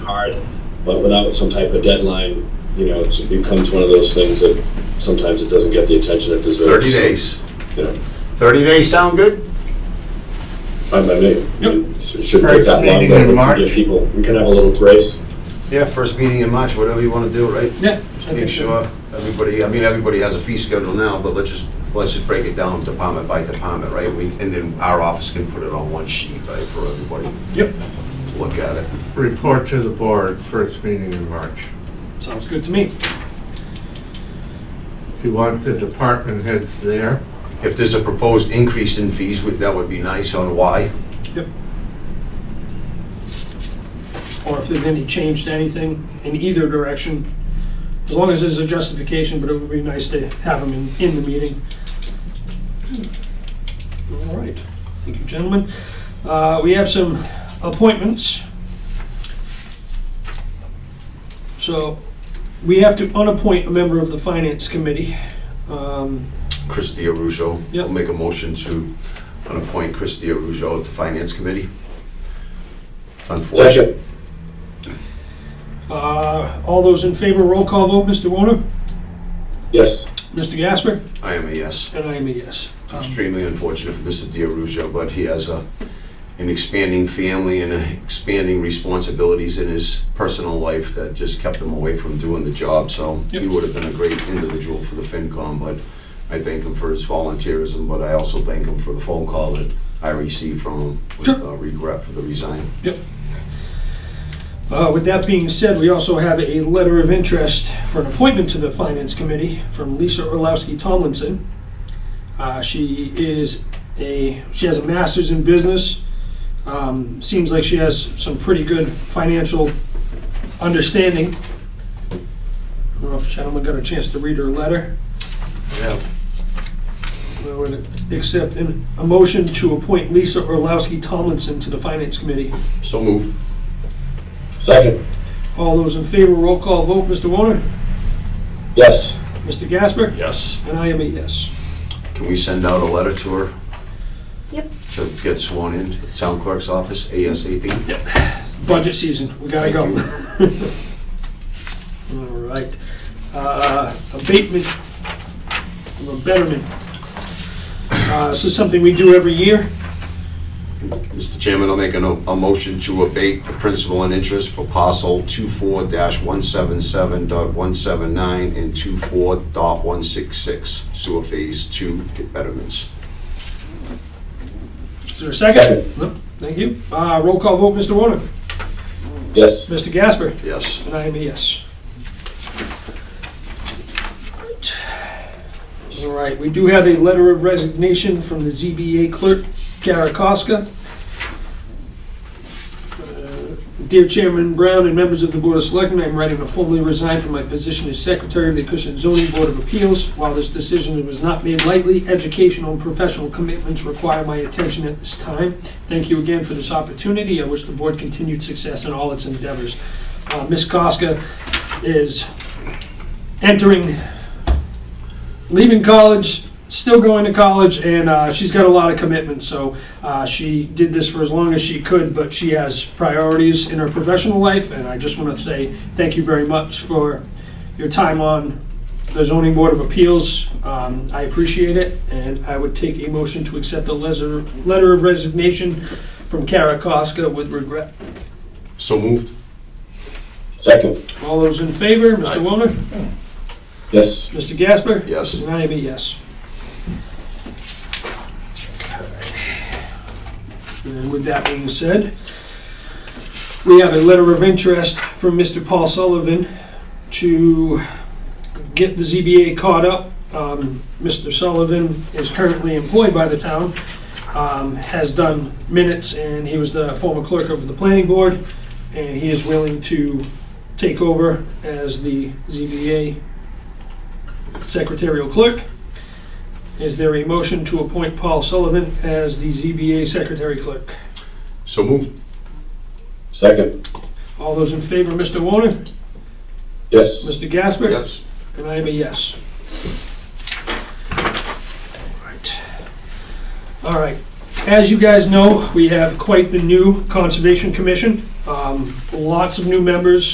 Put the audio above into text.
hard, but without some type of deadline, you know, it becomes one of those things that sometimes it doesn't get the attention it deserves. 30 days. You know, 30 days sound good? by my name. It shouldn't take First that long, meeting but in we can March. give people, we can have a little grace. Yeah, first meeting in March, whatever you want to do, right? Yeah. I Make think sure so. everybody, I mean, everybody has a fee schedule now, but let's just, let's just break it down department by department, right? We And then our office can put it on one sheet, right, for everybody Yep, to look at it. Report to the board, first meeting in March. sounds good to me. If you want the department heads there, If there's a proposed increase in fees, would- that would be nice on why. Yep. Or if there's any change to anything in either direction, as long as there's a justification, but it would be nice to have them in, in the meeting. All right, thank you, gentlemen. Uh, we have some appointments. So, we have to unappoint a member of the finance committee. Um, Chris Russo. Yep. I'll make a motion to appoint Chris Russo to Finance Committee. Unfortunately. Second. Uh, All those in favor, roll call vote, Mr. Warner, Yes, Mr. Gasper, I am a yes. and I am a yes. Um, Extremely unfortunate for Mr. DiRusio, but he has a, an expanding family and a expanding responsibilities in his personal life that just kept him away from doing the job, so he Yep. would have been a great individual for the FinCom, but I thank him for his volunteerism, but I also thank him for the phone call that I received from him with Sure. uh, regret for the resign. uh, With that being said, we also have a letter of interest for an appointment to the Finance Committee from Lisa Orlowski Tomlinson. Uh, She is a, she has a master's in business. Um, Seems like she has some pretty good financial understanding. I don't know if gentlemen got a chance to read her letter. Yeah, I would accept an- a motion to appoint Lisa Orlowski Tomlinson to the Finance Committee. so moved. second, All those in favor, roll call vote, Mr. Warner, yes, Mr. Gasper, Yes. and I am a yes. Can we send out a letter to her? Yep. To get sworn in, at town clerk's office ASAP? Budget season, we gotta go. Thank All right. Uh, Abatement, or betterment. Uh, This is something we do every year. Mr. Chairman, I'll make a, no- a motion to abate the principal and interest for parcel 24-177.179 and 24.166 sewer phase two betterments. Is there a second? Second. No, Thank you. Uh, Roll call vote, Mr. Warner, yes. Mr. Gasper, Yes. And I am a yes. All right, we do have a letter of resignation from the ZBA clerk, Kara Koska. Uh, Dear Chairman Brown and members of the Board of Selectmen, I'm writing to formally resign from my position as Secretary of the Cushing Zoning Board of Appeals. While this decision was not made lightly, educational and professional commitments require my attention at this time. Thank you again for this opportunity. I wish the board continued success in all its endeavors. Uh, Ms. Koska is entering, leaving college, still going to college, and uh, she's got a lot of commitments. So uh, she did this for as long as she could, but she has priorities in her professional life. And I just want to say thank you very much for your time on the Zoning Board of Appeals. Um, I appreciate it, and I would take a motion to accept the letter, letter of resignation from Kara Koska with regret. So moved. Second, All those in favor, Mr. Aye. Wilner? yes, Mr. Gasper? Yes. And I am a yes. And with that being said, we have a letter of interest from Mr. Paul Sullivan to get the ZBA caught up. Um, Mr. Sullivan is currently employed by the town, um, has done minutes, and he was the former clerk of the planning board, and he is willing to take over as the ZBA secretarial clerk. Is there a motion to appoint Paul Sullivan as the ZBA secretary clerk? So moved. second, All those in favor, Mr. Warner, yes. Mr. Gasper? Yes. And I am a yes. Alright. Alright, as you guys know, we have quite the new Conservation Commission. Um, Um, Lots of new members,